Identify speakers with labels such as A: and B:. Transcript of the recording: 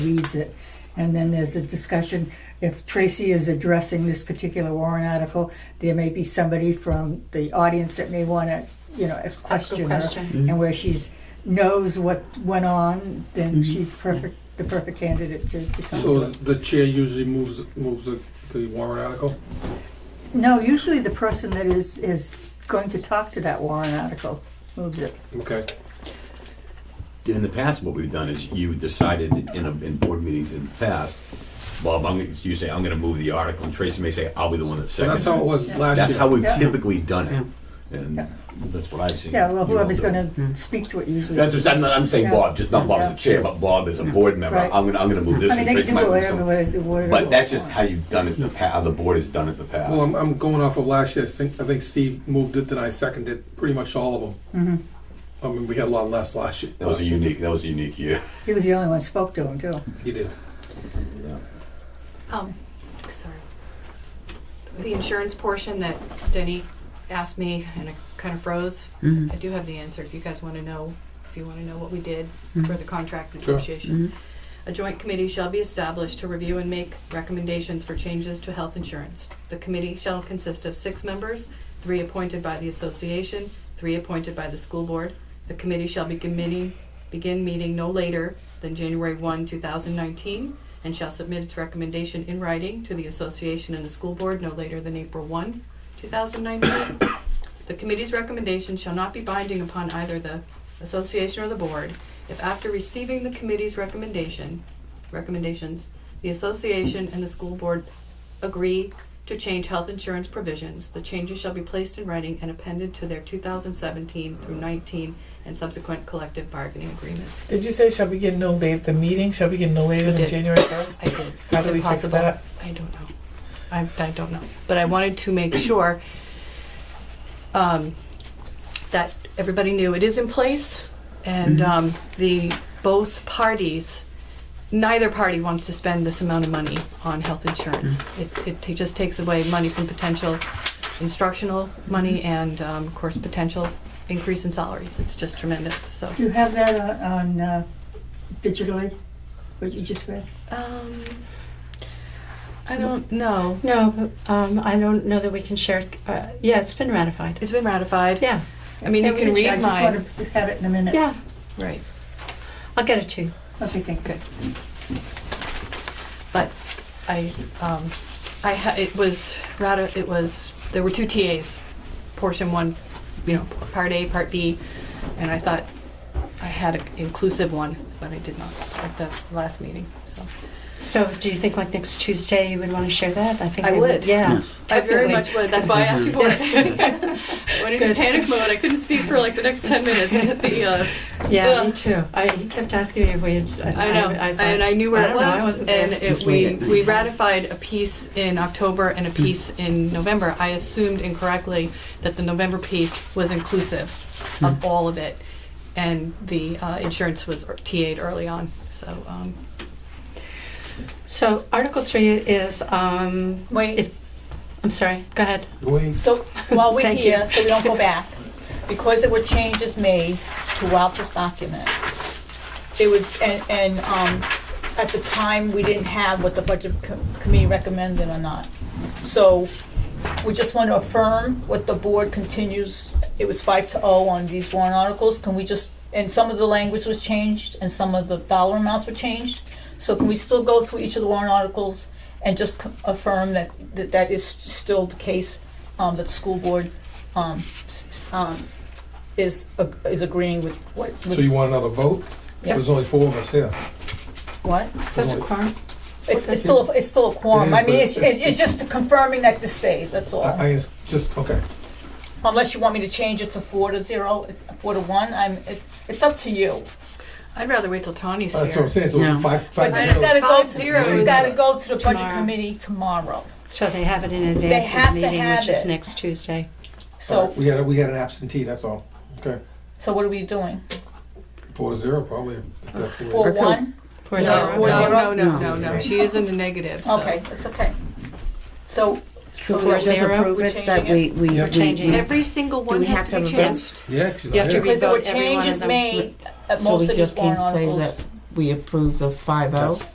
A: reads it. And then there's a discussion, if Tracy is addressing this particular warrant article, there may be somebody from the audience that may want to, you know, ask
B: Ask a
A: question her.
B: question.
A: And where she's, knows what went on, then she's perfect, the perfect candidate to, to come.
C: So
A: to it.
C: the chair usually moves, moves the- the warrant article?
A: No, usually the person that is, is going to talk to that warrant article moves it.
C: Okay.
D: in the past, what we've done is you decided in, a- in board meetings in the past, Bob, I'm, gonna- you say, I'm gonna move the article, and Tracy may say, I'll be the one that
C: So
D: seconds
C: that's how it
D: it.
C: was last year?
D: That's how we've
A: Yeah.
D: typically done it, and that's what I've seen.
A: Yeah, well,
D: you all
A: whoever's
D: do.
A: going to speak to it usually.
D: That's what, I'm not, I'm saying
A: Yeah.
D: Bob, just not Bob as
A: Yeah.
D: a chair, but Bob as a board member,
A: Right.
D: I'm gonna, I'm gonna move this
A: I
D: one,
A: mean, they
D: Tracy
A: can
D: might
A: do
D: move
A: whatever,
D: some.
A: whatever. whatever
D: But that's
A: they
D: just
A: want.
D: how you've done it, in the pa- how the board has done it in the past.
C: Well, I'm, I'm going off of last year, I think, I think Steve moved it, then I seconded pretty much all of them. I mean, we had a lot less last year.
D: That was a unique, that was a unique year.
A: He was the only one who spoke to him, too.
C: He did.
B: Um, sorry. The insurance portion that Denny asked me and it kind of froze. I do have the answer if you guys want to know, if you want to know what we did for the contract
C: Sure.
B: negotiation. A joint committee shall be established to review and make recommendations for changes to health insurance. The committee shall consist of six members, three appointed by the association, three appointed by the school board. The committee shall be committing, begin meeting no later than January one, two thousand nineteen, and shall submit its recommendation in writing to the association and the school board no later than April one, two thousand nineteen. The committee's recommendation shall not be binding upon either the association or the board. If after receiving the committee's recommendation, recommendations, the association and the school board agree to change health insurance provisions, the changes shall be placed in writing and appended to their two thousand seventeen through nineteen and subsequent collective bargaining agreements.
E: Did you say shall begin no later, the meeting shall begin no later
B: We
E: than
B: did.
E: January first?
B: I did.
E: How
B: It's
E: do we fix
B: impossible.
E: that?
B: I don't know. I, I don't know. But I wanted to make sure um, that everybody knew it is in place and
E: Mm-hmm.
B: um, the both parties, neither party wants to spend this amount of money on health insurance. It,
E: Mm-hmm.
B: it ta- just takes away money from potential instructional money
E: Mm-hmm.
B: and, um, of course, potential increase in salaries. It's just tremendous. So,
A: Do you have that on- on, uh, digitally, what you just read?
B: um, I don't know.
F: No, but, um, I don't know that we can share. it. Uh, yeah, it's been ratified.
B: It's been ratified.
F: Yeah,
B: I mean, you
F: Yeah, we
B: can
F: can
B: read
A: I
B: mine.
A: just want to have it in a minute.
F: Yeah.
B: Right.
F: I'll get it to you.
A: Okay, thank you.
B: But I, um, I ha- it was rather, it was, there were two TAs, portion one, you know, part A, part B, and I thought I had an inclusive one, but I did not at the last meeting, so.
F: So, do you think like next Tuesday you would want to share that? I think
B: I
F: we
B: would.
F: Yeah.
B: I very
F: Definitely.
B: much would, that's why I asked you for it. When he's in
F: Good.
B: panic mode, I couldn't speak for like the next ten minutes, and the, uh,
F: Yeah,
B: Ugh.
F: me too. I, he kept asking me if we had.
B: I know,
F: thought-
B: and I knew where it
F: don't know, I
B: was,
F: wasn't there.
B: and it, we, we ratified a piece in October and a piece in November. I assumed incorrectly that the November piece was inclusive
F: Hmm.
B: of all of it, and the uh, insurance was er- TA'd early on, so, um,
F: So, Article Three is. Um,
G: Wait.
F: If, I'm sorry. Go ahead.
G: So while we're
F: Thank
G: here,
F: you.
G: so we don't go back, because there were changes made throughout this document, they would, and, and, um, at the time, we didn't have what the budget co- committee recommended or not. So we just want to affirm what the board continues, it was five to oh on these warrant articles, can we just, and some of the language was changed, and some of the dollar amounts were changed. So can we still go through each of the warrant articles and just co- affirm that, that that is still the case, um, that the school board, um, s- s- um, is, ag- is agreeing with what? was-
C: So you want another vote?
G: Yep.
C: There's only four of us here.
G: What?
F: Is that a quorum?
G: It's, it's still, a- it's still a
C: It is,
G: quorum, I mean,
C: but
G: it's, it's it's just confirming that this stays, that's all.
C: I, I just- just, okay.
G: Unless you want me to change it to four to zero, it's four to one, I'm, it- it's up to you.
B: I'd rather wait till Tony's
C: Oh, That's what I'm
B: here.
C: saying, so five, five.
G: But
B: I
G: this has
B: know.
C: to
G: gotta go
B: Five
G: to,
B: zeros.
G: this has gotta go to the budget
F: Tomorrow.
G: committee tomorrow.
F: So they have it in advance
G: have to
F: of the meeting,
G: have
F: which is
G: it.
F: next Tuesday.
C: zero.
G: So,
C: We had, a- we had an absentee, that's all. Okay.
G: so what are we doing?
C: Four to zero, probably. if that's the way-
G: Four, one?
F: For
B: No,
F: a zero.
B: no,
G: Four zero?
B: no, no, no, no, she is in the negative, so.
G: Okay, it's okay. So,
H: So
F: Four
H: we'll just
F: zero,
H: approve
G: we're
H: it, that we,
G: changing
H: we,
C: We're
H: we-
F: changing it.
B: Every single one
H: we
B: has
H: have
B: to
H: to
B: be
H: have a vote?
B: changed.
C: Yeah, she's
F: You
C: not
F: have to
C: here.
F: read
G: because there were
F: Every one of
G: changes
F: them.
G: made at
H: so
G: most
H: we
G: of these
H: just can't
G: warrant
H: say
G: articles.
H: that we approve the five oh.
C: That's-